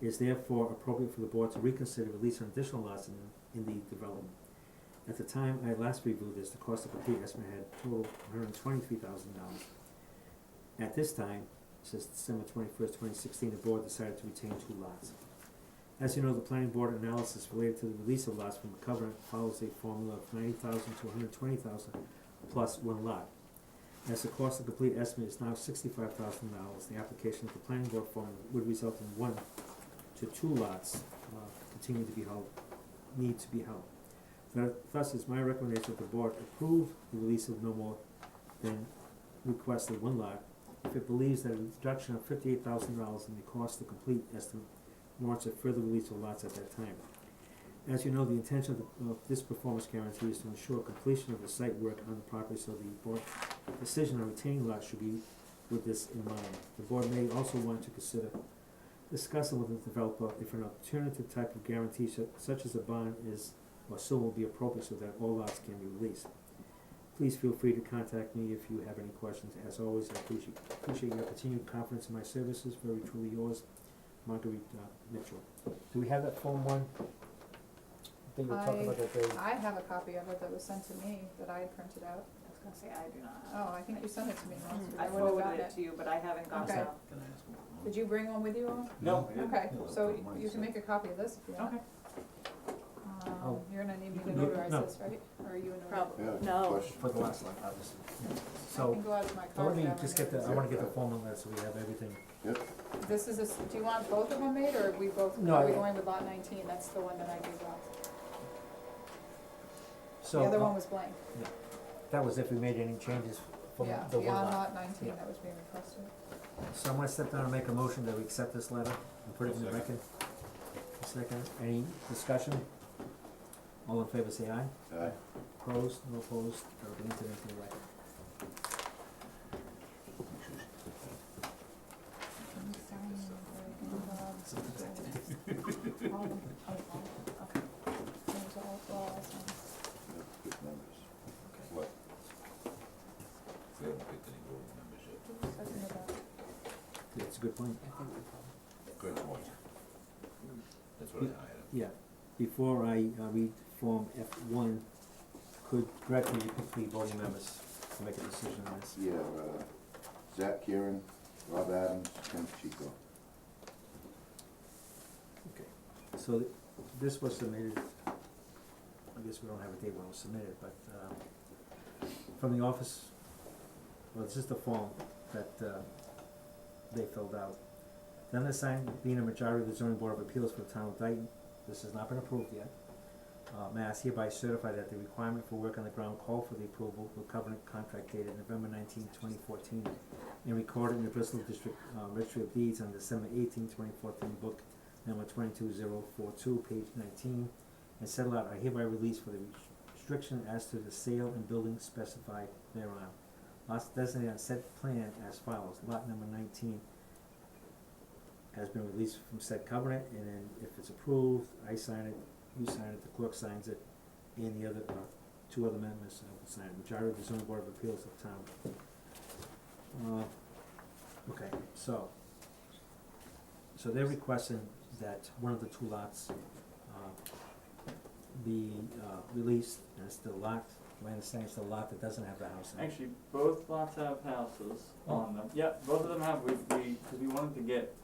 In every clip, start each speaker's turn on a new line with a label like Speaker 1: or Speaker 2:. Speaker 1: It is therefore appropriate for the board to reconsider release on additional lots in, in the development. At the time I last reviewed this, the cost of the complete estimate had totaled one hundred and twenty-three thousand dollars. At this time, since December twenty-first, twenty sixteen, the board decided to retain two lots. As you know, the planning board analysis related to the release of lots from covenant follows a formula of ninety thousand to hundred and twenty thousand plus one lot. As the cost of complete estimate is now sixty-five thousand dollars, the application of the planning board formula would result in one to two lots, uh, continue to be held, need to be held. Thus- Thus, it's my recommendation that the board approve the release of no more than requested one lot if it believes that a reduction of fifty-eight thousand dollars in the cost to complete estimate warrants a further release of lots at that time. As you know, the intention of, the- of this performance guarantee is to ensure completion of the site work on the property, so the board decision on retaining lots should be with this in mind. The board may also want to consider discussing with the developer if an alternative type of guarantee su- such as a bond is or soon will be appropriate so that all lots can be released. Please feel free to contact me if you have any questions. As always, I appreciate, appreciate your continued confidence in my services. Very truly yours, Marguerite uh, Mitchell. Do we have that Form One? I think we talked
Speaker 2: I-
Speaker 1: about that they,
Speaker 2: I have a copy of it that was sent to me that I had printed out.
Speaker 3: I was gonna say, I do not. have
Speaker 2: Oh, I think you sent it to me once,
Speaker 3: it. Mm.
Speaker 2: but
Speaker 3: Hmm, I
Speaker 2: I wouldn't have
Speaker 3: forwarded
Speaker 2: gotten
Speaker 3: it
Speaker 2: it.
Speaker 3: to you, but I haven't got
Speaker 2: Okay.
Speaker 3: it.
Speaker 4: Can I ask one?
Speaker 2: Did you bring one with you? Owen?
Speaker 4: No.
Speaker 2: Okay,
Speaker 4: Yeah,
Speaker 2: so
Speaker 4: that's what
Speaker 2: you
Speaker 4: mine
Speaker 2: can
Speaker 4: said.
Speaker 2: make a copy of this if you want.
Speaker 3: Okay.
Speaker 2: Um,
Speaker 1: Oh.
Speaker 2: you're gonna need me to
Speaker 1: No, no.
Speaker 2: notarize this, right? Or are you a notary?
Speaker 3: Probably.
Speaker 5: Yeah,
Speaker 3: No.
Speaker 5: question.
Speaker 1: for the last lot, obviously.
Speaker 2: I
Speaker 1: So,
Speaker 2: can go out of my
Speaker 1: so
Speaker 2: car.
Speaker 1: let me
Speaker 2: if that
Speaker 1: just get the,
Speaker 2: one
Speaker 1: I wanna get the Form One letter so we have everything.
Speaker 5: Yep,
Speaker 2: is- This is, a s- do you want both of them made or are we both,
Speaker 1: No,
Speaker 2: are we
Speaker 1: I-
Speaker 2: going with lot nineteen? That's the one that I gave out.
Speaker 1: So,
Speaker 2: The other
Speaker 1: uh,
Speaker 2: one was blank.
Speaker 1: that was if we made any changes from
Speaker 2: Yeah,
Speaker 1: the one
Speaker 2: beyond
Speaker 1: lot.
Speaker 2: lot nineteen
Speaker 1: Yeah.
Speaker 2: that was being requested.
Speaker 1: So I'm gonna step down and make a motion that we accept this letter and put it in the
Speaker 4: Second.
Speaker 1: record. A Second, any discussion? All in favor, say aye.
Speaker 5: aye.
Speaker 1: Opposed, no opposed, or be entered into the record.
Speaker 5: Yep, Good numbers. What?
Speaker 4: We haven't picked any voting members yet.
Speaker 1: That's a good point.
Speaker 4: Good point. That's what I hired him.
Speaker 1: Yeah, before I, uh, read Form F one, could Greg, could you pick the voting members to make a decision on this?
Speaker 5: Yeah, uh, Zach Kieran, Rob Adams, Ken Chico.
Speaker 1: So th- this was submitted, I guess we don't have a date when it was submitted, but um from the office, well, it's just a form that uh they filled out. Then the sign being a majority of the zoning board of appeals for the town of Dayton, this has not been approved yet. Uh Mass hereby certify that the requirement for work on the ground called for the approval of covenant contract dated November 19, 2014, and recorded in the Bristol District uh Registry of Deeds on December 18, 2014, book number twenty-two zero four two, page nineteen, and settle out are hereby released for the restriction as to the sale and building specified thereon. Lots designated on said plan as follows, lot number nineteen has been released from said covenant, and then if it's approved, I sign it, you sign it, the clerk signs it, and the other, uh, two other members uh, will sign it, majority of the zoning board of appeals of town. Uh, okay, so, so they're requesting that one of the two lots, uh, be, uh, released, and it's the lot, my understanding it's the lot that doesn't have the house in it.
Speaker 6: Actually, both lots have houses
Speaker 3: Oh.
Speaker 6: on them. Yep, both of them have, we, we, cause we wanted to get,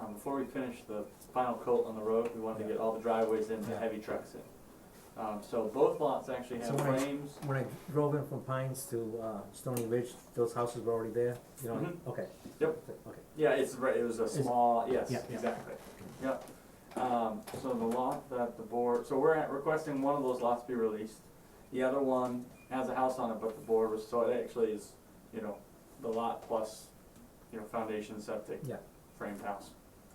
Speaker 6: um, before we finished the final coat on the road, we wanted to
Speaker 1: Yeah.
Speaker 6: get all the driveways in, the
Speaker 1: Yeah.
Speaker 6: heavy trucks in. Um, so both lots actually
Speaker 1: So
Speaker 6: have
Speaker 1: when I-
Speaker 6: frames.
Speaker 1: When I drove in from Pines to, uh, Stony Ridge, those houses were already there, you know,
Speaker 6: Mhm.
Speaker 1: okay.
Speaker 6: Yep.
Speaker 1: Okay,
Speaker 6: Yeah, it's right, it was a
Speaker 1: Is-
Speaker 6: small, yes,
Speaker 1: yeah, yeah.
Speaker 6: exactly, yep. Um, so the lot that the board, so we're at- requesting one of those lots be released. The other one has a house on it, but the board was, so it actually is, you know, the lot plus, you know, foundation septic.
Speaker 1: Yeah.
Speaker 6: Framed house,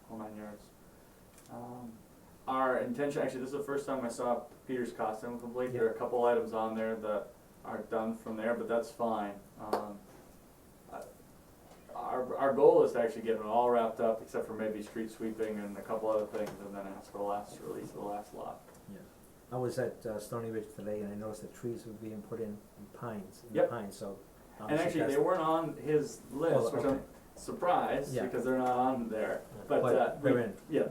Speaker 6: all nine yards. Um, our intention, actually, this is the first time I saw Peter's costume complete, there are a couple items on there that are done from there, but that's fine. Um, our, our goal is to actually get it all wrapped up, except for maybe street sweeping and a couple other things, and then ask for the last release of the last lot.
Speaker 1: yeah. I was at, uh, Stony Ridge today and I noticed that trees were being put in, in Pines, in
Speaker 6: Yep.
Speaker 1: Pines, so.
Speaker 6: And
Speaker 1: obviously
Speaker 6: actually,
Speaker 1: that's-
Speaker 6: they weren't on his list,
Speaker 1: Oh,
Speaker 6: which I'm
Speaker 1: okay.
Speaker 6: surprised,
Speaker 1: Yeah.
Speaker 6: because they're not on there,
Speaker 1: Yeah,
Speaker 6: but, uh, we-
Speaker 1: they're in.
Speaker 6: yeah,